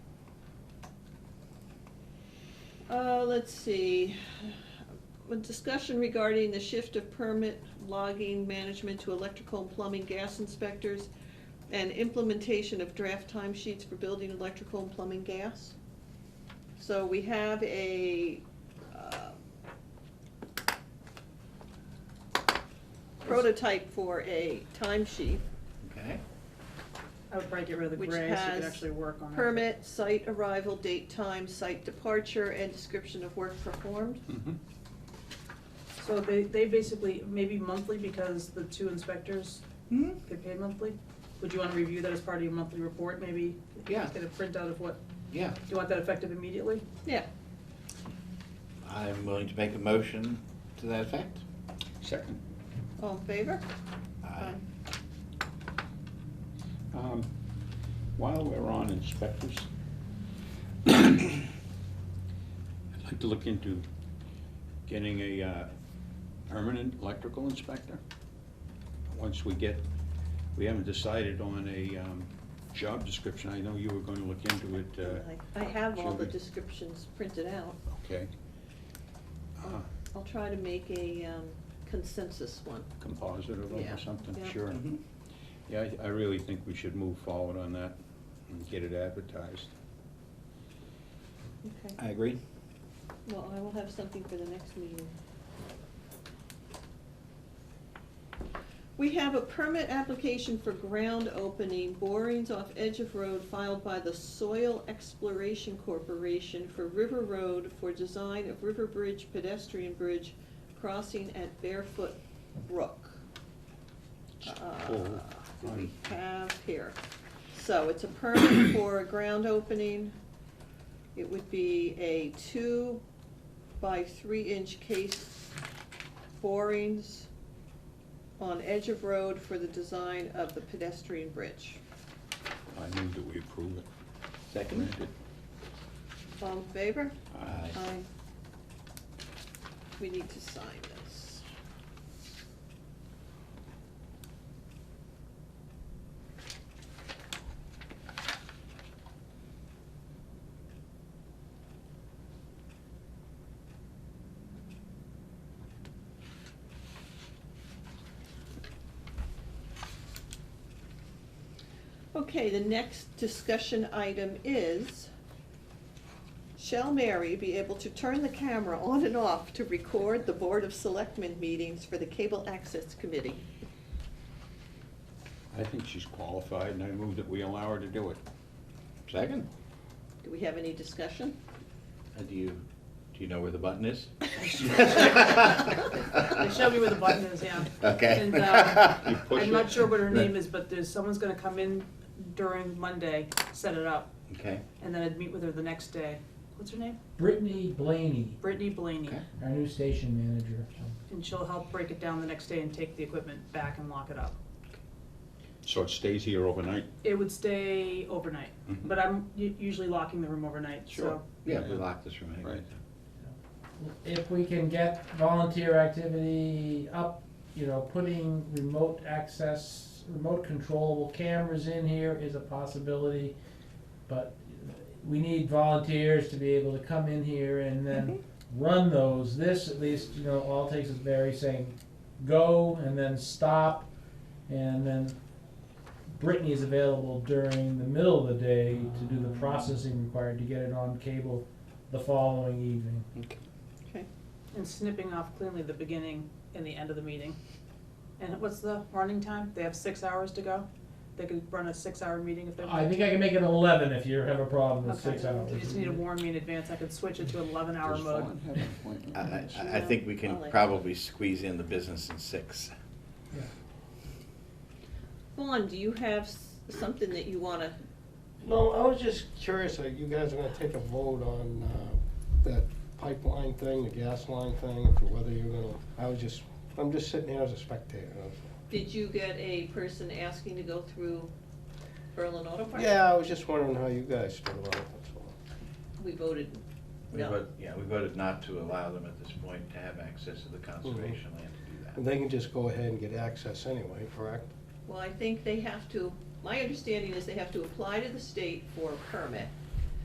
Uh, let's see, a discussion regarding the shift of permit logging management to electrical and plumbing gas inspectors and implementation of draft timesheets for building electrical and plumbing gas. So we have a, uh, prototype for a timesheet, Okay, I would probably get rid of the which gray so you has could actually work on it. permit, site arrival, date, time, site departure, and description of work performed. So they, they basically, maybe monthly because the two inspectors Mm-hmm. get paid monthly. Would you wanna review that as part of your monthly report, maybe? Yeah. Get a printout of what, yeah, do you want that effective immediately? Yeah, I'm willing to make a motion to that effect. Second. all in favor? Aye. Um, While we're on inspectors, I'd like to look into getting a uh, permanent electrical inspector. Once we get, we haven't decided on a um, job description. I know you were going to look into it. uh, I I have all the Should we- descriptions printed out. Okay. Uh, I'll try to make a um, consensus one. Composite of Yeah, them or something, yeah. Mm-hmm. sure. Mhm. Mm-hmm. Yeah, I- I really think we should move forward on that and get it advertised. Okay, I agree. well, I will have something for the next meeting. We have a permit application for ground opening, borings off edge of road filed by the Soil Exploration Corporation for River Road for design of River Bridge pedestrian bridge crossing at Barefoot Brook. Uh, Oh, do we fine. have here? So it's a permit for a ground opening. It would be a two by three inch case borings on edge of road for the design of the pedestrian bridge. I move that we approve it. Second? All in favor? Aye. Aye. We need to sign this. Okay, the next discussion item is Shall Mary be able to turn the camera on and off to record the Board of Selectmen meetings for the Cable Access Committee? I think she's qualified, and I move that we allow her to do it. Second? Do we have any discussion? Uh, Do you, do you know where the button is? They showed me where the button is, yeah. Okay. And, uh, You push I'm not it. sure what her name is, but there's, someone's gonna come in during Monday, set it up, Okay, and then I'd meet with her the next day. What's her name? Brittany Blaney, Brittany Blaney. Okay. our new station manager. And she'll help break it down the next day and take the equipment back and lock it up. So it stays here overnight? It would stay overnight, Mhm. but I'm u- usually locking the room overnight, so. Sure. yeah, we locked this room anyway. Right. If we can get volunteer activity up, you know, putting remote access, remote controllable cameras in here is a possibility. But we need volunteers to be able to come in here and then run those. This at least, you know, all it takes is Barry saying, go and then stop. And then Brittany is available during the middle of the day to do the processing required to get it on cable the following evening. Okay. And snipping off cleanly the beginning and the end of the meeting. And what's the running time? They have six hours to go? They could run a six-hour meeting if they I want. think I can make it eleven if you have a problem with Okay. six hours. You just need to warn me in advance, I could switch it to eleven-hour Does Fawn mode. have an appointment? I, I, I think we can I'll let- probably squeeze in the business in six. Vaughn, do you have s- something that you wanna, No, I was just curious, are you guys gonna take a vote on, uh, that pipeline thing, the gas line thing, if- whether you're gonna, I was just, I'm just sitting here as a spectator. did you get a person asking to go through Berlin Auto Park? Yeah, I was just wondering how you guys feel about it, that's all. We voted We no. vote, yeah, we voted not to allow them at this point to have access to the conservation land to do that. And they can just go ahead and get access anyway, correct? Well, I think they have to, my understanding is they have to apply to the state for a permit.